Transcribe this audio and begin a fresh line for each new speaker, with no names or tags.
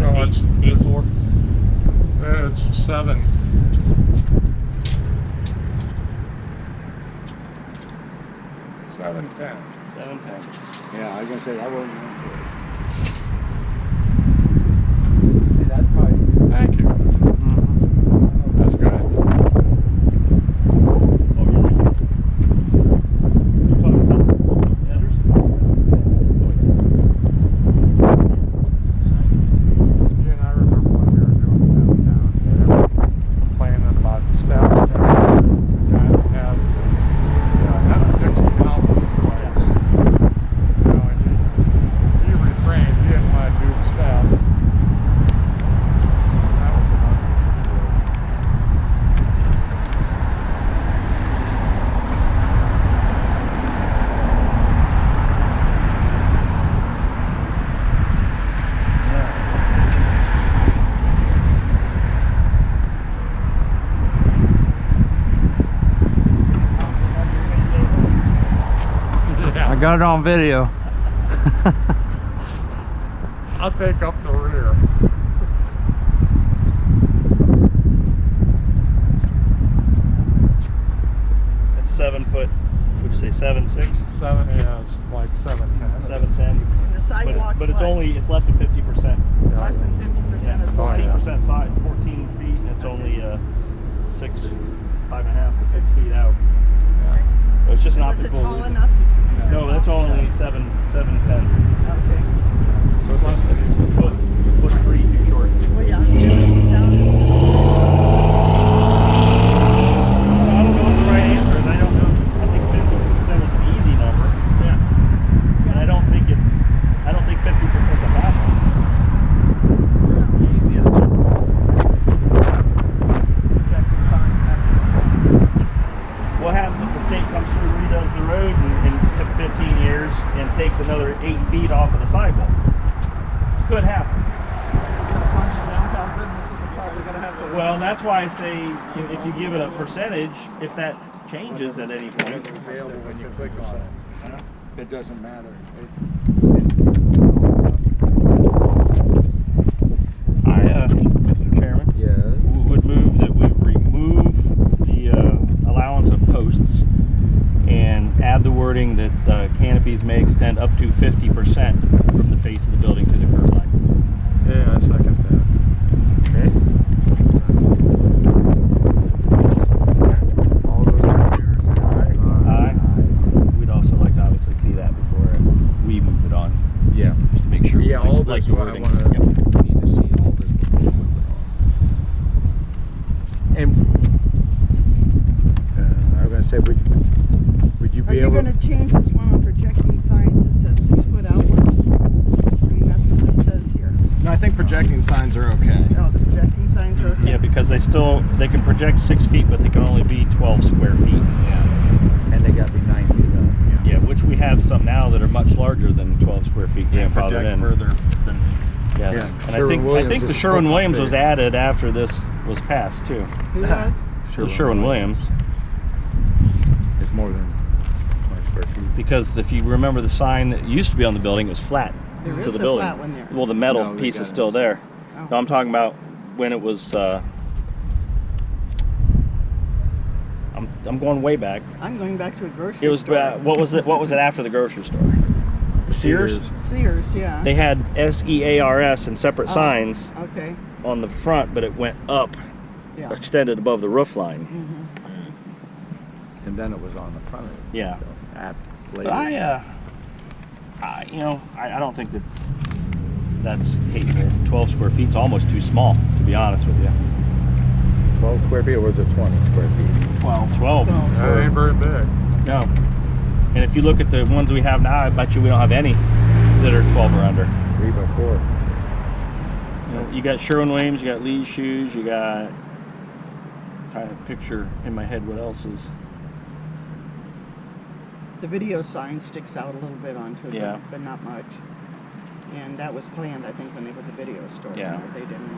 Eight four.
Uh, It's seven. Seven ten.
Seven ten.
Yeah, I was gonna say, that wasn't.
See, that's probably,
Thank you. That's good.
Oh, really? You talking about the others?
See, and I remember when we were doing downtown, they were complaining about staff that did not have, uh, not a Dixie help in place. You know, and he, he refrained, he didn't want to do the staff. That was another
Oh,
issue.
I
Yeah,
got it on video.
I'll take up the rear.
That's seven foot, would you say seven six?
Seven, yeah, it's like seven ten.
Seven ten?
The
But it-
sidewalks.
But it's
what?
only, it's less than fifty percent.
Less than fifty percent of the
Oh,
Fourteen
yeah.
way.
percent side, fourteen feet, and it's only, uh, six, five and a half to six feet out.
Yeah.
So It's just an
Was
optical.
it tall enough? Did you measure
No,
it
that's
off?
only seven, seven ten.
Okay.
So it's less than,
Foot, foot three too short.
Well, yeah, it sounded-
I don't know the right answer, and I don't know, I think fifty percent is the easy number. Yeah. And I don't think it's, I don't think fifty percent is a bad one.
Easiest just
What happens if the state comes through, redoes the road in, in t- 15 years and takes another eight feet off of the sidewalk? Could happen.
downtown businesses are probably gonna have to.
Well, that's why I say if, if you give it a percentage, if that changes at any point,
Available when you click on it. It doesn't matter.
I, uh, Mr. Chairman,
Yeah.
w- would move that we remove the uh, allowance of posts and add the wording that uh, canopies may extend up to 50% from the face of the building to the curb line.
yeah, I second that.
Okay.
All those computers.
Aye. We'd also like to obviously see that before we move it on,
Yeah.
just to make sure. we
Yeah,
like-
all
like
this,
the
what I
wording.
wanna,
Yep.
need to see all this before we move it on. And, uh, I was gonna say, would, would you
Are
be
you
able?
gonna change this one on projecting signs that says six foot outward? I mean, that's what this says here.
No, I think projecting signs are okay.
Oh, the projecting signs are okay.
Yeah, because they still, they can project six feet, but they can only be twelve square feet.
And they gotta be nine feet
Yeah, which we have some now that are much larger than twelve square feet grandfathered
Project
in.
further than
Yeah.
Yeah,
And I think, I
Sherwin-Williams
think the
is
Sherwin-Williams
up
was
there.
added after this was passed too.
Who was?
up.
The Sherwin-Williams,
It's more than twenty square feet.
because if you remember the sign that used to be on the building, it was flat
There
to
is
the
a
building.
flat one there.
Well, the
No,
metal
they
piece
got
is
it.
still there.
Oh.
No, I'm talking about when it was, uh, I'm, I'm going way back.
I'm going back to a grocery store.
It was, ba- what was it, what was it after the grocery store? Sears?
Sears, yeah.
They had E S-E-A-R-S and separate
Oh.
signs
Okay,
on the front, but it went up,
yeah.
extended above the roof line.
Mhm.
And then it was on the front of it.
Yeah.
so, at
But I, uh, I, you know, I, I don't think that that's hateful. 12 square feet's almost too small, to be honest with you.
Twelve square feet, or was it twenty square feet?
12. 12.
Well,
That ain't very big.
No. And if you look at the ones we have now, I bet you we don't have any that are 12 or under.
Three by four.
You, know, you got Sherwin Williams, you got Lee's shoes, you got. Trying to picture in my head what else is.
The video sign sticks out a little bit onto it,
Yeah.
but- but not much. And that was planned, I think, when they put the video store in
Yeah.
there. They didn't